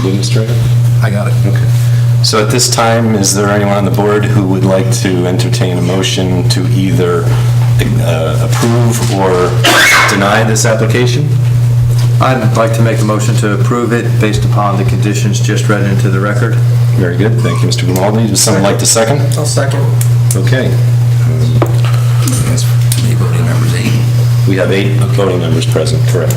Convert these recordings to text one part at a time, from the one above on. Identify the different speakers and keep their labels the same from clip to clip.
Speaker 1: administrator?
Speaker 2: I got it.
Speaker 1: Okay.
Speaker 3: So at this time, is there anyone on the board who would like to entertain a motion to either uh, approve or deny this application?
Speaker 4: I'd like to make a motion to approve it based upon the conditions just read into the record.
Speaker 3: Very good, thank you, Mr. Grimaldi. Would someone like to second?
Speaker 5: I'll second.
Speaker 3: Okay. We have eight voting members present, correct?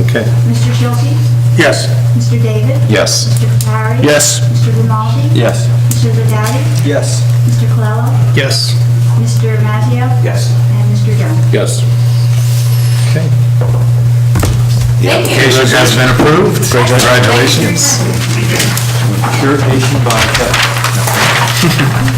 Speaker 3: Okay,
Speaker 6: Mr. Schulte?
Speaker 1: Yes.
Speaker 6: Mr. David?
Speaker 3: yes.
Speaker 6: Mr. Papari?
Speaker 1: Yes.
Speaker 6: Mr. Grimaldi?
Speaker 4: Yes.
Speaker 6: Mr. Vedati?
Speaker 5: Yes.
Speaker 6: Mr. Colella?
Speaker 1: Yes.
Speaker 6: Mr. Mazzio?
Speaker 5: Yes.
Speaker 6: And Mr. Jones?
Speaker 3: Yes. Okay. The application
Speaker 2: It has been approved. Congratulations.
Speaker 4: Pure Asian vodka.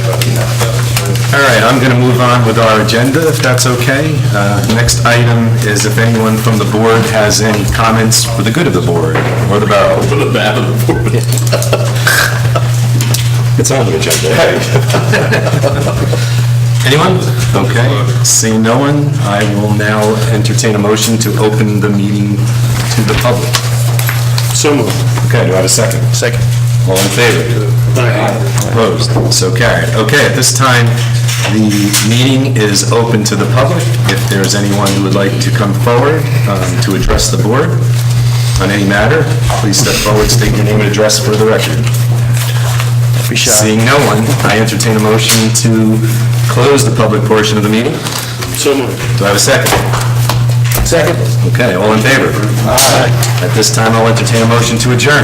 Speaker 3: All right, I'm going to move on with our agenda, if that's okay. Uh, Next item is if anyone from the board has any comments for the good of the board or the barrel. For the bad of the board. It's on the agenda. Anyone? Okay, seeing no one, I will now entertain a motion to open the meeting to the public. So moved. Okay, do I have a second? Second. All in favor? Opposed, so carried. Okay, at this time, the meeting is open to the public. If there's anyone who would like to come forward um, to address the board on any matter, please step forward, state your name and address for the record. Seeing no one, I entertain a motion to close the public portion of the meeting.
Speaker 1: So moved.
Speaker 3: Do I have a second? Second. Okay, all in favor? Aye. At this time, I'll entertain a motion to adjourn.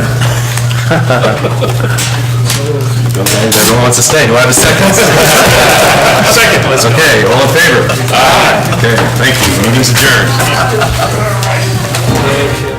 Speaker 3: Okay, if everyone wants to stay, do I have a second? Second. Okay, all in favor? Aye. Okay, thank you, meeting's adjourned.
Speaker 5: Thank you.